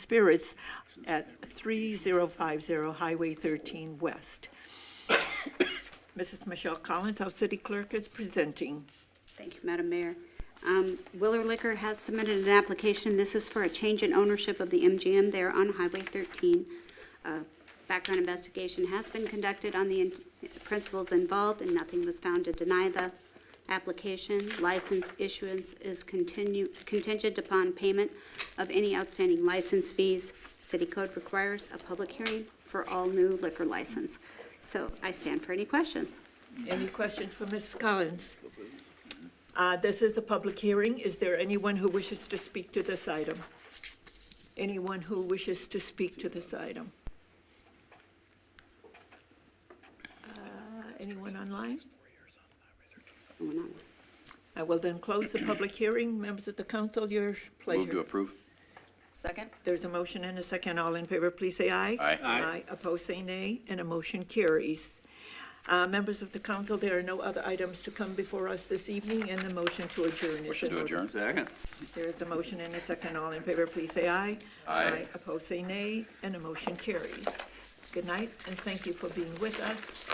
Spirits at 3050 Highway 13 West. Mrs. Michelle Collins, our city clerk, is presenting. Thank you, Madam Mayor. Um, Willer Liquor has submitted an application. This is for a change in ownership of the MGM there on Highway 13. Uh, Background investigation has been conducted on the in- principals involved, and nothing was found to deny the application. License issuance is continue- contingent upon payment of any outstanding license fees. City code requires a public hearing for all new liquor license. So I stand for any questions. Any questions for Mrs. Collins? Uh, This is a public hearing. Is there anyone who wishes to speak to this item? Anyone who wishes to speak to this item? Uh, Anyone online? Going on. I will then close the public hearing. Members of the council, your Move to pleasure. approve. Second? There's a motion and a second. All in favor, please say aye. Aye. Aye. Opposed, say nay, and a motion carries. Uh, Members of the council, there are no other items to come before us this evening, and the motion to adjourn is Motion in to order. adjourn. Second. There is a motion and a second. All in favor, please say aye. Aye. Opposed, say nay, and a motion carries. Good night, and thank you for being with us.